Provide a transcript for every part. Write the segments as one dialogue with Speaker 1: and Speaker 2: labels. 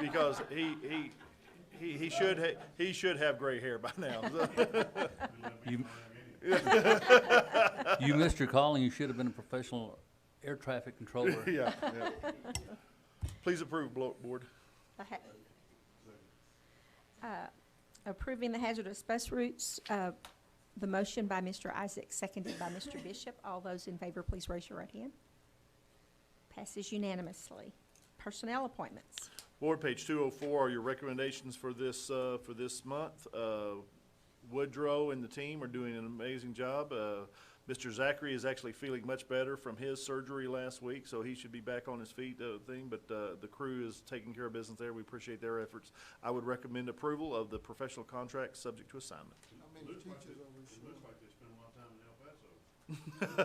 Speaker 1: because he, he, he, he should, ha- he should have gray hair by now.
Speaker 2: You, you missed your calling. You should have been a professional air traffic controller.
Speaker 1: Yeah, yeah. Please approve, blo- board.
Speaker 3: The ha- Uh, Approving the hazardous bus routes, uh, the motion by Mr. Isaac, seconded by Mr. Bishop. All those in favor, please raise your right hand. Passes unanimously. Personnel appointments.
Speaker 1: Board, page two oh four are your recommendations for this, uh, for this month. Uh, Woodrow and the team are doing an amazing job. Uh, Mr. Zachary is actually feeling much better from his surgery last week, so he should be back on his feet, uh, thing, but, uh, the crew is taking care of business there. We appreciate their efforts. I would recommend approval of the professional contract subject to assignment.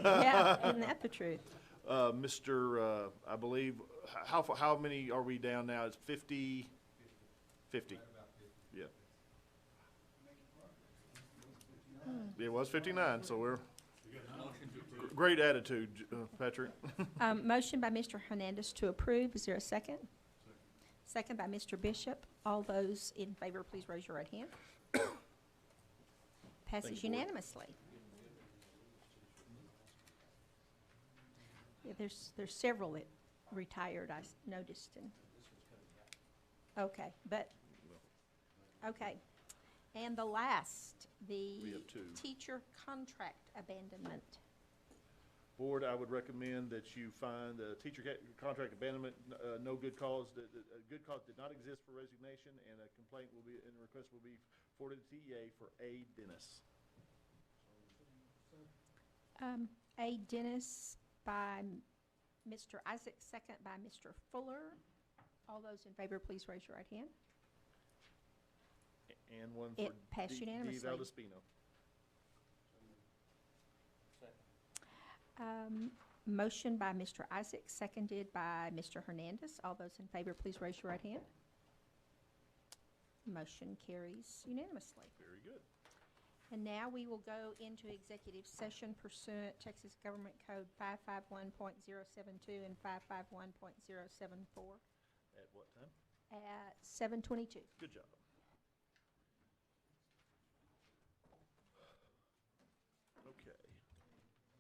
Speaker 3: Yeah, isn't that the truth?
Speaker 1: Uh, Mr., uh, I believe, h- how, fa- how many are we down now? It's fifty? Fifty? Yeah. It was fifty-nine, so we're, Gr- great attitude, J- uh, Patrick.
Speaker 3: Um, Motion by Mr. Hernandez to approve. Is there a second? Second by Mr. Bishop. All those in favor, please raise your right hand. Passes unanimously. Yeah, there's, there's several that retired, I s- noticed, and, okay, but, okay. And the last,
Speaker 1: We
Speaker 3: the
Speaker 1: have two.
Speaker 3: teacher contract abandonment.
Speaker 1: Board, I would recommend that you find a teacher ca- contract abandonment, uh, no good cause, that, that, a good cause did not exist for resignation, and a complaint will be, and a request will be forwarded to TEA for A. Dennis.
Speaker 3: Um, A. Dennis by m- Mr. Isaac, second by Mr. Fuller. All those in favor, please raise your right hand.
Speaker 1: And one for
Speaker 3: It passed
Speaker 1: D- D.
Speaker 3: unanimously.
Speaker 1: Valdespino.
Speaker 3: Um, Motion by Mr. Isaac, seconded by Mr. Hernandez. All those in favor, please raise your right hand. Motion carries unanimously.
Speaker 1: Very good.
Speaker 3: And now we will go into executive session pursuant Texas Government Code 551.072 and 551.074
Speaker 1: At what time?
Speaker 3: at 7:22.
Speaker 1: Good job.